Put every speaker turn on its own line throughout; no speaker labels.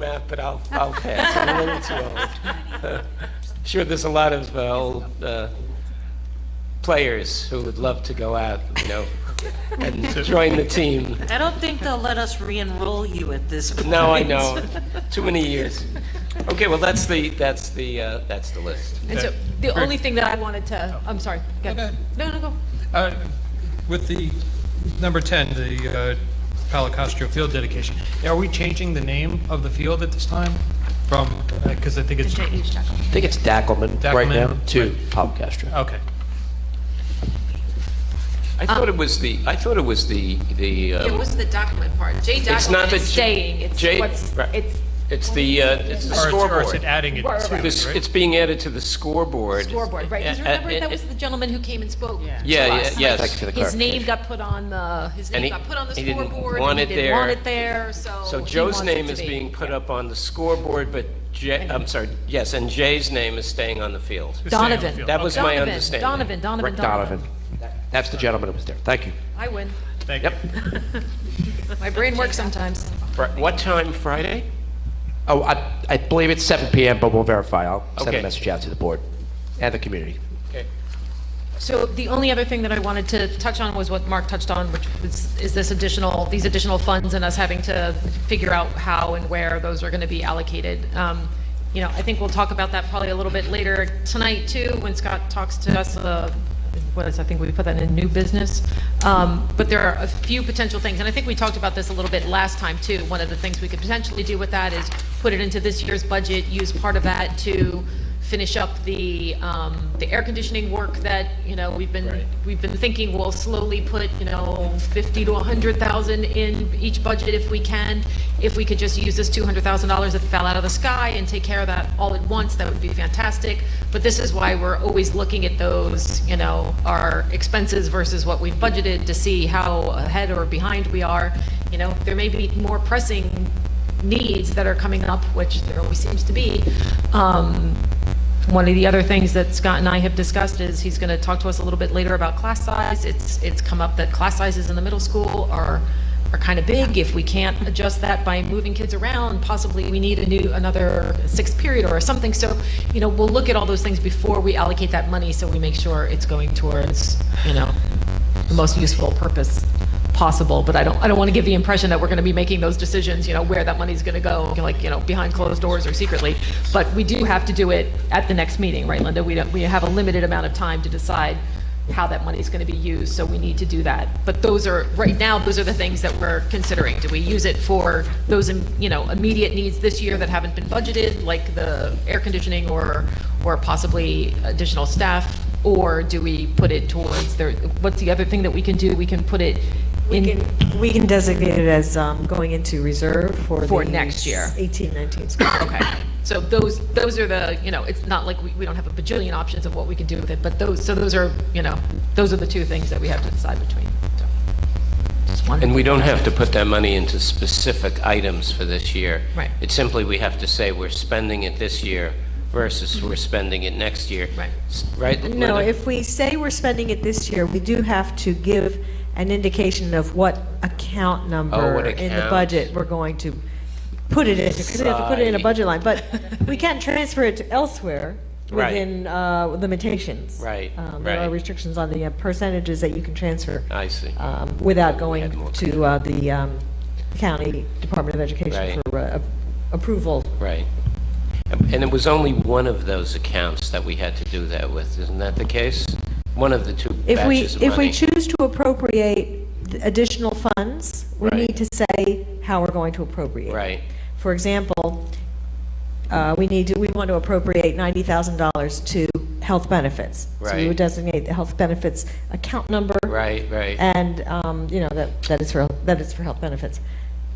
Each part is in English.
math, but I'll, I'll pass. I'm a little too old. uh, Sure, there's a lot of uh, old uh, players who would love to go out, you know, and join the team.
I don't think they'll let us re-enroll you at this point.
No, I know, too many years. Okay, well, that's the, that's the, uh, that's the list.
And so,
Okay.
the
Great.
only thing that I wanted to, I'm sorry, go.
Go ahead.
No, no, go.
Uh, With the number 10, the uh, Palo Castro Field dedication, are we changing the name of the field at this time from, because I think it's,
I think it's Dackelman right
Dackelman,
now to
right.
Pop Castro.
okay.
I thought it was the, I thought it was the, the,
It
uh,
was the document part. Jay
it's
document
not the.
is
Staying, it's
J-
what's,
right.
it's,
It's the, uh, it's the
Or it's- Or
scoreboard.
is it adding it to
Right, right.
it,
This-
right?
It's being added to the scoreboard.
scoreboard, right? Because
Uh, uh,
remember, that
uh,
was the gentleman who came and spoke.
Yeah.
Yeah,
to
yeah,
us.
Thank you
yes.
for the
His name
clarification.
got put on the,
his name
and he-
got put on the
he didn't
scoreboard.
want
he
it
didn't
there.
want it there, so.
So
he
Joe's
wants it
name
to
is
be-
being put up on the scoreboard, but Jay, I'm sorry, yes, and Jay's name is staying on the field.
It's staying on the
Donovan.
field.
That was my
Donovan,
understanding.
Donovan, Donovan,
Rick
Donovan.
Donovan. That's the gentleman who was there. Thank you.
I win.
Thank you.
Yep.
My brain works sometimes.
Fri- What time Friday?
Oh, I, I believe it's 7 PM, but we'll verify. I'll send
Okay.
a message out to the board and the community.
Okay.
So the only other thing that I wanted to touch on was what Mark touched on, which was, is this additional, these additional funds and us having to figure out how and where those are going to be allocated. Um, You know, I think we'll talk about that probably a little bit later tonight too, when Scott talks to us, uh, what is, I think we put that in new business. Um, But there are a few potential things, and I think we talked about this a little bit last time too. One of the things we could potentially do with that is put it into this year's budget, use part of that to finish up the, um, the air conditioning work that, you know, we've been, we've been thinking we'll slowly put, you know, fifty to a hundred thousand in each budget if we can. If we could just use this two hundred thousand dollars that fell out of the sky and take care of that all at once, that would be fantastic. But this is why we're always looking at those, you know, our expenses versus what we've budgeted to see how ahead or behind we are. You know, there may be more pressing needs that are coming up, which there always seems to be. Um, One of the other things that Scott and I have discussed is he's going to talk to us a little bit later about class size. It's, it's come up that class sizes in the middle school are, are kind of big. If we can't adjust that by moving kids around, possibly we need a new, another sixth period or something. So, you know, we'll look at all those things before we allocate that money so we make sure it's going towards, you know, the most useful purpose possible, but I don't, I don't want to give the impression that we're going to be making those decisions, you know, where that money's going to go, like, you know, behind closed doors or secretly. But we do have to do it at the next meeting, right, Linda? We don't, we have a limited amount of time to decide how that money's going to be used, so we need to do that. But those are, right now, those are the things that we're considering. Do we use it for those, im- you know, immediate needs this year that haven't been budgeted, like the air conditioning or, or possibly additional staff? Or do we put it towards, the- what's the other thing that we can do? We can put it
We
in,
can, we can designate it as um, going into reserve for the...
For next year.
18, 19 school. year.
okay. So those, those are the, you know, it's not like we, we don't have a bajillion options of what we can do with it, but those, so those are, you know, those are the two things that we have to decide between. So, Just wanted
And we don't have to put that money into specific items for this year.
Right.
It's simply we have to say we're spending it this year versus
Mm-hmm.
we're spending it next year.
Right.
S- Right?
No,
Linda?
if we say we're spending it this year, we do have to give an indication of what account number
Oh, what
in the
account.
budget we're going to put it into, because we have to put it in a
Right.
budget line, but we can't transfer it to elsewhere
Right.
within uh, limitations.
Right,
Um, There
right.
are restrictions on the uh, percentages that you can transfer
I see.
Uh.
um, without
had more
going to uh, the um, county Department of Education
Right.
for uh, approval
Right. And and it was only one of those accounts that we had to do that with, isn't that the case? One of the two
If we,
batches of
if we
money.
choose to appropriate th- additional funds, we
Right.
need to say how we're going to appropriate.
Right.
For example, uh, we need to, we want to appropriate $90,000 to health benefits. So we
Right.
would designate the health benefits account number.
Right, right.
And, um, you know, that, that is for, that is for health benefits.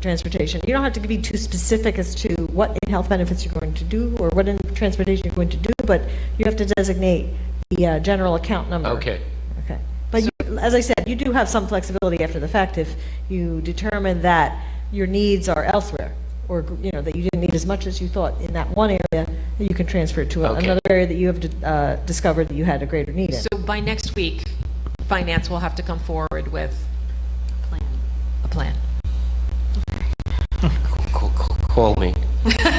Transportation, you don't have to be too specific as to what in health benefits you're going to do or what in transportation you're going to do, but you have to designate the uh, general account number.
Okay.
Okay. But you- as I said, you do have some flexibility after the fact if you determine that your needs are elsewhere, or, you know, that you didn't need as much as you thought in that one area, that you can transfer it to a-
Okay.
another area that you have uh, discovered that you had a greater need in.
So by next week, finance will have to come forward with a plan.
Ca- ca- Call me.